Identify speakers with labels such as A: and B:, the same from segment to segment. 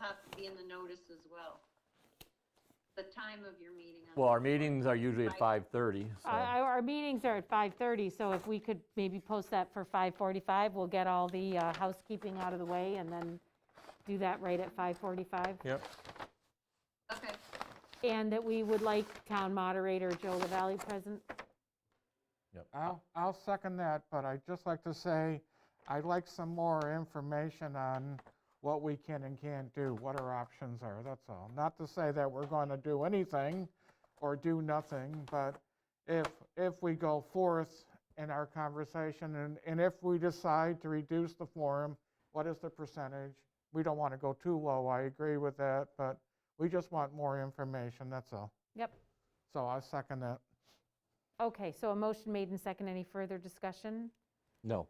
A: have to be in the notice as well. The time of your meeting. on-
B: Well, our meetings are usually at 5:30, so.
C: Our- Our our meetings are at 5:30, so if we could maybe post that for 5:45, we'll get all the uh, housekeeping out of the way and then do that right at 5:45.
B: Yep.
A: Okay,
C: And that we would like town moderator Joe LaValle present.
D: I'll, I'll second that, but I'd just like to say, I'd like some more information on what we can and can't do, what our options are, that's all. Not to say that we're going to do anything or do nothing, but if, if we go forth in our conversation and, and if we decide to reduce the forum, what is the percentage? We don't want to go too low, I agree with that, but we just want more information, that's all.
C: Yep.
D: So I second that.
C: Okay, so a motion made and second. Any further discussion?
B: No.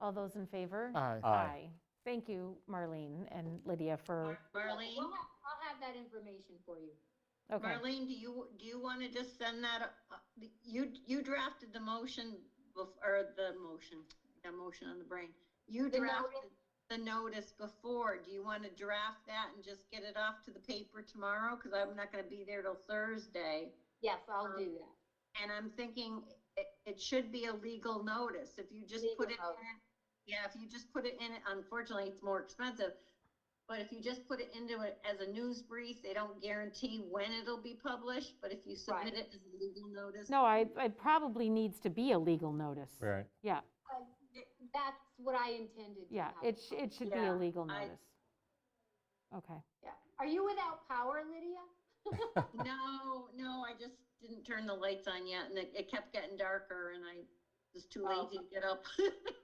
B: Uh,
C: All those in favor?
D: Aye.
B: Aye.
C: Thank you, Marlene and Lydia, for,
A: Marlene,
E: We'll have- I'll have that information for you.
C: okay.
A: Marlene, do you, do you want to just send that, uh, you, you drafted the motion, bef- or the motion, the motion on the brain. You
E: The
A: drafted the notice before. Do you want to draft that and just get it off to the paper tomorrow? Because I'm not going to be there till Thursday.
E: Yes, I'll
A: Um,
E: do that.
A: And I'm thinking it, it should be a legal notice. If you just put it
E: Legal notice.
A: in, yeah, if you just put it in, unfortunately, it's more expensive. But if you just put it into it as a news brief, they don't guarantee when it'll be published, but if you submit
E: Right.
A: it as a legal notice.
C: No, I, it probably needs to be a legal notice.
B: Right.
C: Yeah,
E: That's what I intended. to
C: yeah,
E: have.
C: it, sh- it should be
A: Yeah,
C: a legal
A: I-
C: notice. Okay.
E: Yeah. Are you without power, Lydia?
A: No, no, I just didn't turn the lights on yet and it, it kept getting darker and I was too
E: Oh.
A: lazy to get up.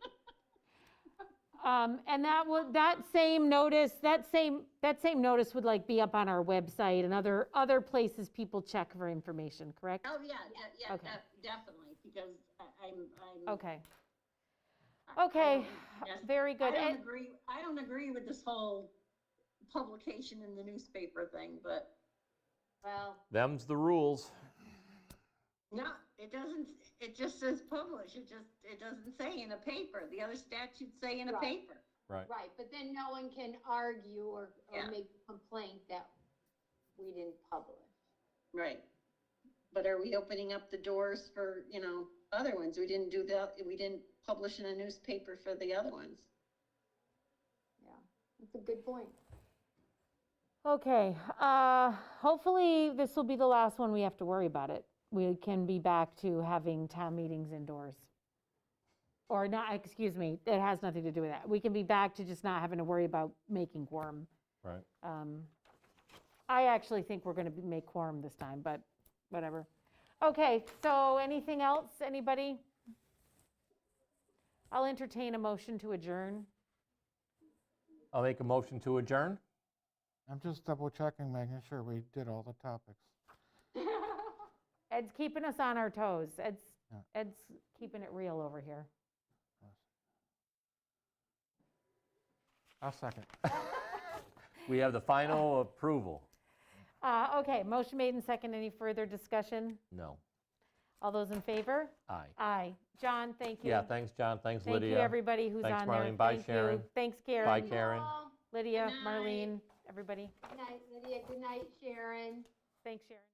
C: Um, And that will, that same notice, that same, that same notice would like be up on our website and other, other places people check for information, correct?
A: Oh, yeah, de- yeah,
C: Okay.
A: de- definitely, because I- I'm, I'm.
C: Okay,
A: I- I
C: okay,
A: don't- yes.
C: very
A: I
C: good.
A: don't
C: And-
A: agree, I don't agree with this whole publication in the newspaper thing, but
E: Well,
B: Them's the rules.
A: no, it doesn't, it just says publish, it just, it doesn't say in a paper. The other statutes say in a
E: Right.
A: paper.
B: Right.
E: right, but then no one can argue or,
A: Yeah.
E: or make a complaint that we didn't publish.
A: Right. But are we opening up the doors for, you know, other ones? We didn't do that, we didn't publish in a newspaper for the other ones.
E: Yeah, that's a good point.
C: Okay, uh, hopefully this will be the last one we have to worry about it. We can be back to having town meetings indoors. Or not, excuse me, it has nothing to do with that. We can be back to just not having to worry about making quorum.
B: Right.
C: Um, I actually think we're going to make quorum this time, but whatever. Okay, so anything else, anybody? I'll entertain a motion to adjourn.
B: I'll make a motion to adjourn.
D: I'm just double checking, making sure we did all the topics.
C: Ed's keeping us on our toes. Ed's,
D: Yeah.
C: Ed's keeping it real over here.
D: I'll second.
B: We have the final approval.
C: Uh, Okay, motion made and second. Any further discussion?
B: No.
C: All those in favor?
B: Aye.
C: Aye. John, thank you.
B: Yeah, thanks, John. Thanks, Lydia.
C: Thank you, everybody who's
B: Thanks,
C: on there.
B: Marlene. Bye,
C: Thank you.
B: Sharon.
C: Thanks,
B: Bye,
C: Karen,
B: Karen.
E: Well,
C: Lydia,
A: Good night.
C: Marlene, everybody.
E: Good night, Lydia. Good night, Sharon.
C: Thanks, Sharon.